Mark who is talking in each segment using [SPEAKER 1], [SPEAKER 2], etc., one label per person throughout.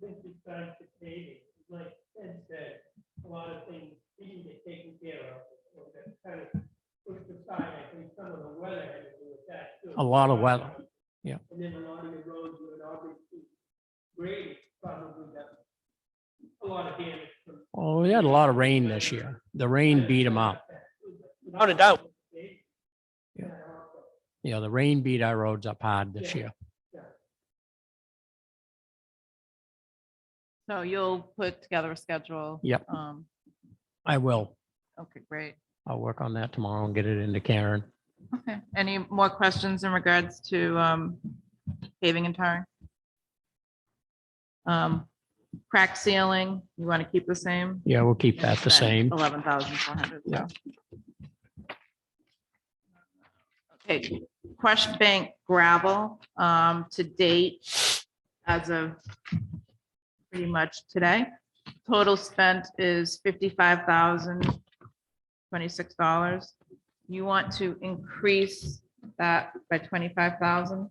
[SPEAKER 1] since we started this meeting, like Ted said, a lot of things need to get taken care of. So that kind of pushed aside, I think some of the weather had to do with that too.
[SPEAKER 2] A lot of weather, yeah.
[SPEAKER 1] And then a lot of the roads would obviously grade probably got a lot of damage from.
[SPEAKER 2] Well, we had a lot of rain this year. The rain beat them up.
[SPEAKER 3] Without a doubt.
[SPEAKER 2] Yeah. You know, the rain beat our roads up hard this year.
[SPEAKER 4] So you'll put together a schedule?
[SPEAKER 2] Yep.
[SPEAKER 4] Um,
[SPEAKER 2] I will.
[SPEAKER 4] okay, great.
[SPEAKER 2] I'll work on that tomorrow and get it into Karen.
[SPEAKER 4] Okay. Any more questions in regards to, um, paving and tarring? Um, crack sealing, you want to keep the same?
[SPEAKER 2] Yeah, we'll keep that the same.
[SPEAKER 4] Eleven thousand four hundred.
[SPEAKER 2] Yeah.
[SPEAKER 4] Okay, Crush Bank gravel, um, to date, as of pretty much today. Total spent is fifty-five thousand twenty-six dollars. You want to increase that by twenty-five thousand?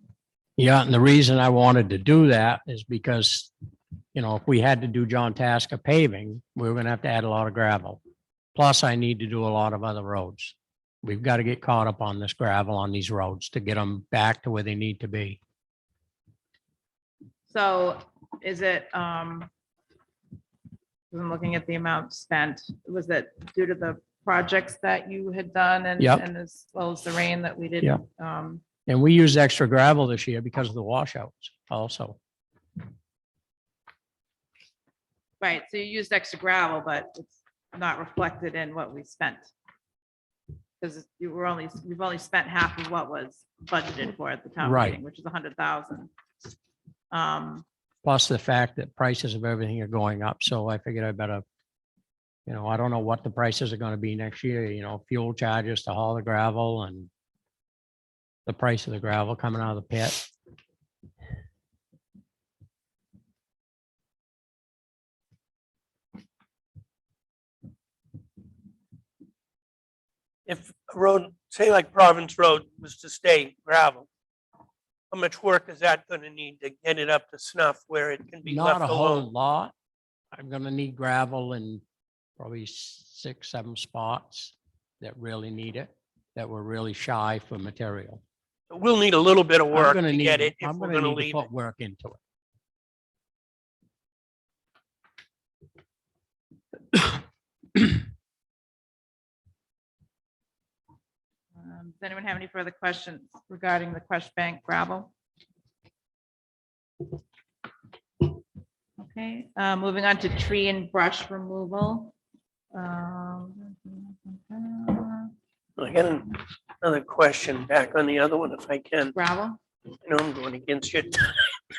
[SPEAKER 2] Yeah, and the reason I wanted to do that is because, you know, if we had to do John Tasker paving, we were gonna have to add a lot of gravel. Plus, I need to do a lot of other roads. We've got to get caught up on this gravel on these roads to get them back to where they need to be.
[SPEAKER 4] So is it, um, 'cause I'm looking at the amount spent, was that due to the projects that you had done and,
[SPEAKER 2] Yep.
[SPEAKER 4] and as well as the rain that we did?
[SPEAKER 2] Yeah.
[SPEAKER 4] Um,
[SPEAKER 2] And we used extra gravel this year because of the washouts also.
[SPEAKER 4] right, so you used extra gravel, but it's not reflected in what we spent. Because you were only, we've only spent half of what was budgeted for at the town
[SPEAKER 2] Right.
[SPEAKER 4] meeting, which is a hundred thousand. Um,
[SPEAKER 2] Plus the fact that prices of everything are going up. So I figured I better, you know, I don't know what the prices are going to be next year, you know, fuel charges to haul the gravel and the price of the gravel coming out of the pit.
[SPEAKER 3] If a road, say like Province Road was to stay gravel, how much work is that gonna need to get it up to snuff where it can be left
[SPEAKER 2] Not a whole
[SPEAKER 3] alone?
[SPEAKER 2] lot. I'm going to need gravel in probably six, seven spots that really need it, that were really shy for material.
[SPEAKER 3] We'll need a little bit of
[SPEAKER 2] I'm
[SPEAKER 3] work
[SPEAKER 2] gonna
[SPEAKER 3] to
[SPEAKER 2] need-
[SPEAKER 3] get it if
[SPEAKER 2] I'm
[SPEAKER 3] we're gonna
[SPEAKER 2] need
[SPEAKER 3] leave it.
[SPEAKER 2] Put work into it.
[SPEAKER 4] um, does anyone have any further questions regarding the Crush Bank gravel? Okay, uh, moving on to tree and brush removal. Um,
[SPEAKER 3] I got another question back on the other one if I can.
[SPEAKER 4] Gravel?
[SPEAKER 3] I know I'm going against you.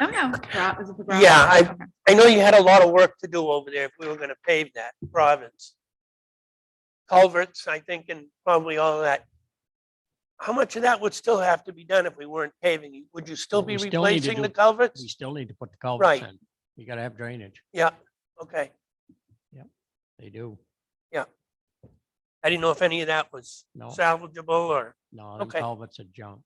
[SPEAKER 4] Oh, no. gra- is it the gravel?
[SPEAKER 3] Yeah, I-
[SPEAKER 4] Okay.
[SPEAKER 3] I know you had a lot of work to do over there if we were gonna pave that province. Culverts, I think, and probably all of that. How much of that would still have to be done if we weren't paving? Would you still
[SPEAKER 2] We
[SPEAKER 3] be
[SPEAKER 2] still need to
[SPEAKER 3] replacing the
[SPEAKER 2] do-
[SPEAKER 3] culverts?
[SPEAKER 2] We still need to put the culverts
[SPEAKER 3] Right.
[SPEAKER 2] in. You got to have drainage.
[SPEAKER 3] Yeah, okay.
[SPEAKER 2] They do.
[SPEAKER 3] I didn't know if any of that was
[SPEAKER 2] No.
[SPEAKER 3] salvageable or,
[SPEAKER 2] No, them
[SPEAKER 3] Okay.
[SPEAKER 2] culverts are junk.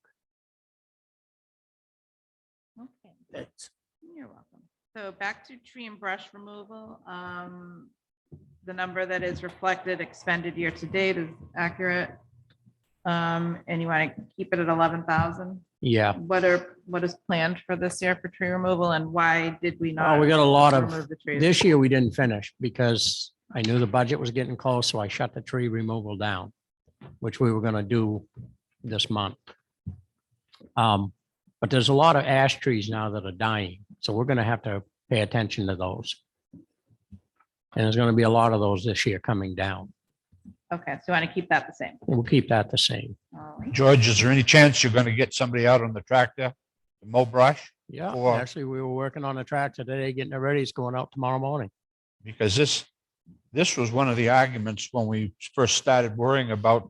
[SPEAKER 4] Okay.
[SPEAKER 3] that's,
[SPEAKER 4] You're welcome. So back to tree and brush removal. um, The number that is reflected expended year to date is accurate. Um, And you want to keep it at 11,000?
[SPEAKER 2] Yeah.
[SPEAKER 4] What are, what is planned for this year for tree removal and why did we not?
[SPEAKER 2] Oh, we got a lot of,
[SPEAKER 4] remove the trees?
[SPEAKER 2] this year we didn't finish because I knew the budget was getting close, so I shut the tree removal down, which we were going to do this month. Um, But there's a lot of ash trees now that are dying, so we're going to have to pay attention to those. And there's going to be a lot of those this year coming down.
[SPEAKER 4] Okay, so you want to keep that the same?
[SPEAKER 2] We'll keep that the same.
[SPEAKER 4] All right.
[SPEAKER 5] George, is there any chance you're gonna get somebody out on the tractor to mow brush?
[SPEAKER 2] Yeah,
[SPEAKER 5] Or-
[SPEAKER 2] actually, we were working on a tractor today, getting it ready. It's going out tomorrow morning.
[SPEAKER 5] Because this, this was one of the arguments when we first started worrying about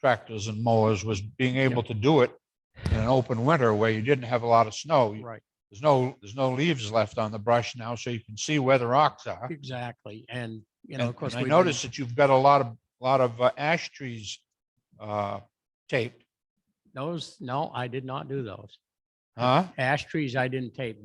[SPEAKER 5] tractors and mowers was being able to do it in an open winter where you didn't have a lot of snow.
[SPEAKER 2] Right.
[SPEAKER 5] There's no, there's no leaves left on the brush now, so you can see where the rocks are.
[SPEAKER 2] Exactly, and, you know,
[SPEAKER 5] And
[SPEAKER 2] of course.
[SPEAKER 5] and I
[SPEAKER 2] we've been-
[SPEAKER 5] noticed that you've got a lot of, lot of uh, ash trees uh, taped,
[SPEAKER 2] Those, no, I did not do those.
[SPEAKER 5] huh?
[SPEAKER 2] Ash trees I didn't tape.